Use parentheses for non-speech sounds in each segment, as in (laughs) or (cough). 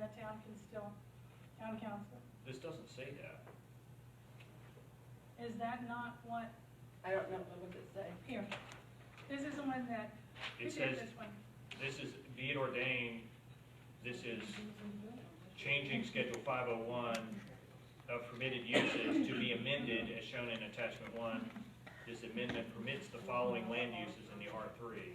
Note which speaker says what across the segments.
Speaker 1: that town can still, town council.
Speaker 2: This doesn't say that.
Speaker 1: Is that not what,
Speaker 3: I don't know, what does it say?
Speaker 1: here, this is the one that, we
Speaker 2: It
Speaker 1: did
Speaker 2: says,
Speaker 1: this one.
Speaker 2: this is, be it ordained, this is changing Schedule 501 of permitted uses to be amended as shown in Attachment 1. This amendment permits the following land uses in the R3.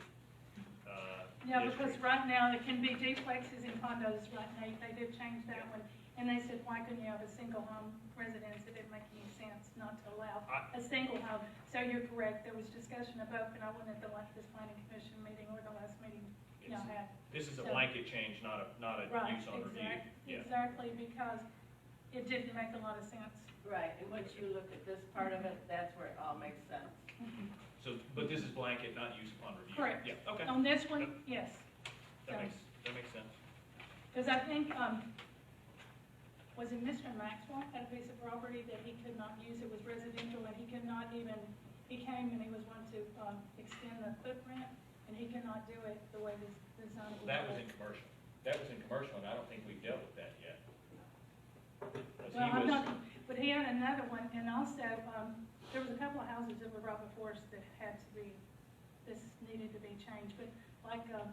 Speaker 2: uh,
Speaker 1: Yeah, because
Speaker 2: district.
Speaker 1: right now, it can be duplexes and condos right now, they did change that one. And they said, why couldn't you have a single home residence? It didn't make any sense not to allow a single home. So you're correct, there was discussion about, and I went at the last, this planning commission meeting or the last meeting, you know,
Speaker 2: It's-
Speaker 1: had.
Speaker 2: This is a blanket change, not a, not a
Speaker 1: Right,
Speaker 2: use on review.
Speaker 1: exact-
Speaker 2: Yeah.
Speaker 1: exactly, because it didn't make a lot of sense.
Speaker 3: Right, and once you look at this part of it, that's where it all makes sense.
Speaker 2: So, but this is blanket, not use upon review.
Speaker 1: Correct. Um,
Speaker 2: Yeah, okay.
Speaker 1: On this one, yes,
Speaker 2: That makes, that makes sense.
Speaker 1: because I think, um, was it Mr. Maxwell had a piece of property that he could not use, it was residential, and he could not even, he came and he was wanting to, um, extend the footprint, and he cannot do it the way this, this zone. was
Speaker 2: That was in
Speaker 1: built.
Speaker 2: commercial. That was in commercial, and I don't think we've dealt with that yet. 'Cause he
Speaker 1: Well, I'm
Speaker 2: was-
Speaker 1: not, but he had another one, and also, um, there was a couple of houses that were brought before us that had to be, this needed to be changed, but like, um,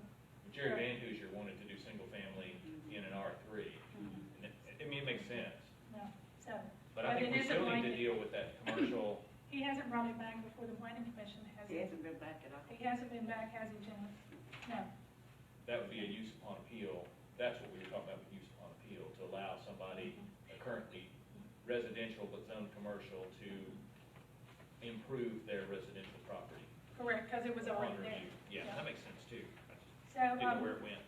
Speaker 2: Jerry Van Hoosier wanted to do single-family in an R3. And it- I mean, it makes sense,
Speaker 1: no, so.
Speaker 2: but I think
Speaker 1: Mm-hmm. it
Speaker 2: we
Speaker 1: isn't
Speaker 2: still need
Speaker 1: like
Speaker 2: to
Speaker 1: it-
Speaker 2: deal with
Speaker 1: (coughs)
Speaker 2: that commercial,
Speaker 1: He hasn't brought it back before the planning commission, has
Speaker 3: He
Speaker 1: he?
Speaker 3: hasn't been back at all.
Speaker 1: He hasn't been back, has he, Janice? No.
Speaker 2: that would be a use upon appeal. That's what we were talking about with use upon appeal, to allow somebody a currently residential but zoned commercial to improve their residential property.
Speaker 1: Correct, because it was
Speaker 2: Upon
Speaker 1: already there.
Speaker 2: review. Yeah, that makes sense too. I just
Speaker 1: So,
Speaker 2: Didn't know where
Speaker 1: um,
Speaker 2: it went.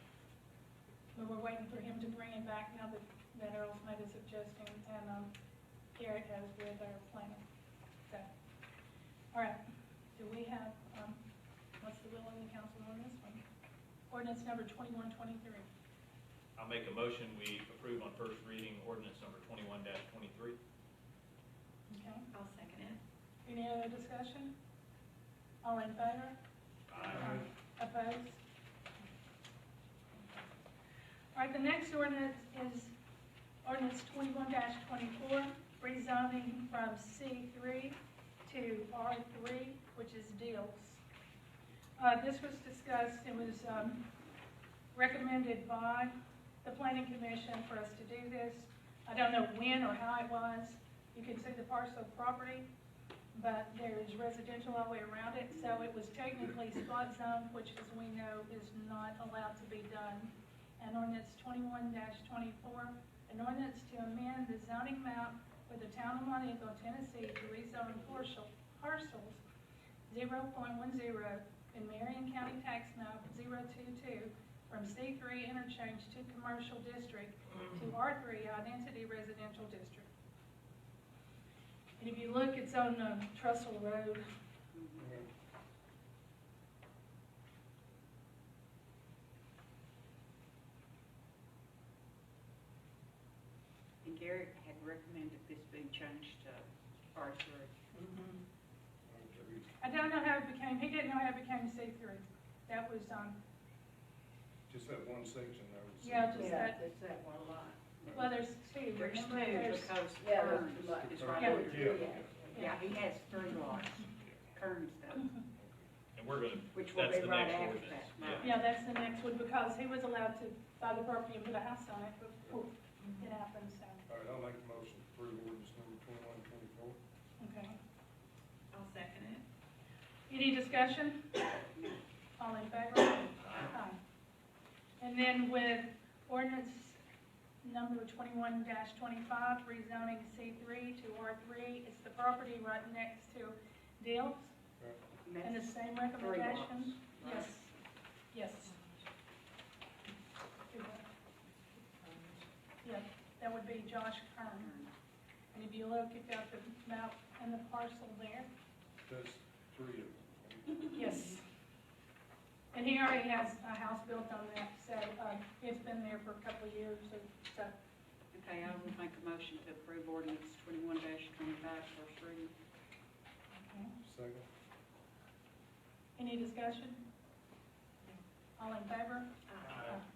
Speaker 1: we were waiting for him to bring it back now that, that Earl's made a suggestion, and, um, Garrett has with our planning. So, all right, do we have, um, what's the will of the council on this one? Ordinance number twenty-one twenty-three.
Speaker 2: I'll make a motion, we approve on first reading ordinance number twenty-one twenty-three.
Speaker 1: Okay,
Speaker 3: I'll second it.
Speaker 1: any other discussion? All in favor? Opposed? All right, the next ordinance is ordinance twenty-one twenty-four, rezoning from C three to R three, which is deals. Uh, this was discussed, it was, um, recommended by the planning commission for us to do this. I don't know when or how it was. You can see the parcel of property but there's residential all the way around it, so it was technically spot zone, which as we know is not allowed to be done. And ordinance twenty-one twenty-four, an ordinance to amend the zoning map for the town of Montego, Tennessee, to rezone partial, parcels zero point one zero in Marion County Tax Map 022 from C three interchange to commercial district to R three identity residential district. And if you look, it's on um, Trestle Road.
Speaker 4: And Garrett had recommended this being changed to R three.
Speaker 3: Mm-hmm.
Speaker 1: I don't know how it became, he didn't know how it became C3. That was, um,
Speaker 5: Just that one section there. was-
Speaker 1: Yeah, just-
Speaker 3: Yeah, it's that one lot.
Speaker 1: well, there's two.
Speaker 4: There's two
Speaker 1: Remember, there's-
Speaker 4: because
Speaker 3: Yeah, there's
Speaker 4: Kearns
Speaker 3: two lots.
Speaker 4: is right
Speaker 1: Yeah.
Speaker 4: over
Speaker 5: Yeah.
Speaker 4: there. Yeah, he has three lots, Kearns does,
Speaker 2: And we're gonna,
Speaker 4: which will
Speaker 2: that's
Speaker 4: be
Speaker 2: the
Speaker 4: right
Speaker 2: next
Speaker 4: after
Speaker 2: ordinance.
Speaker 4: that.
Speaker 2: Yeah.
Speaker 4: mine.
Speaker 1: Yeah, that's the next one, because he was allowed to buy the property and put a house on it before it happened, so,
Speaker 5: All right, I'll make the motion to approve ordinance number twenty-one, twenty-four.
Speaker 1: okay.
Speaker 3: I'll second it.
Speaker 1: Any discussion? All in favor? Aye. And then with ordinance number twenty-one twenty-five, rezoning C three to R three, it's the property right next to Dale's, and the
Speaker 4: that's
Speaker 1: same
Speaker 4: three lots,
Speaker 1: recommendation?
Speaker 4: right?
Speaker 1: Yes, yes. Do that. Yeah, that would be Josh Kern,
Speaker 4: Kearns.
Speaker 1: and if you look, you've got the map and the parcel there.
Speaker 5: That's three of
Speaker 1: (laughs)
Speaker 5: them.
Speaker 1: Yes. And he already has a house built on that, so uh, it's been there for a couple of years, so- so,
Speaker 4: Okay, I will make a motion to approve ordinance twenty-one dash twenty-five, first reading.
Speaker 1: okay.
Speaker 5: Second,
Speaker 1: Any discussion? All in favor?
Speaker 2: Aye.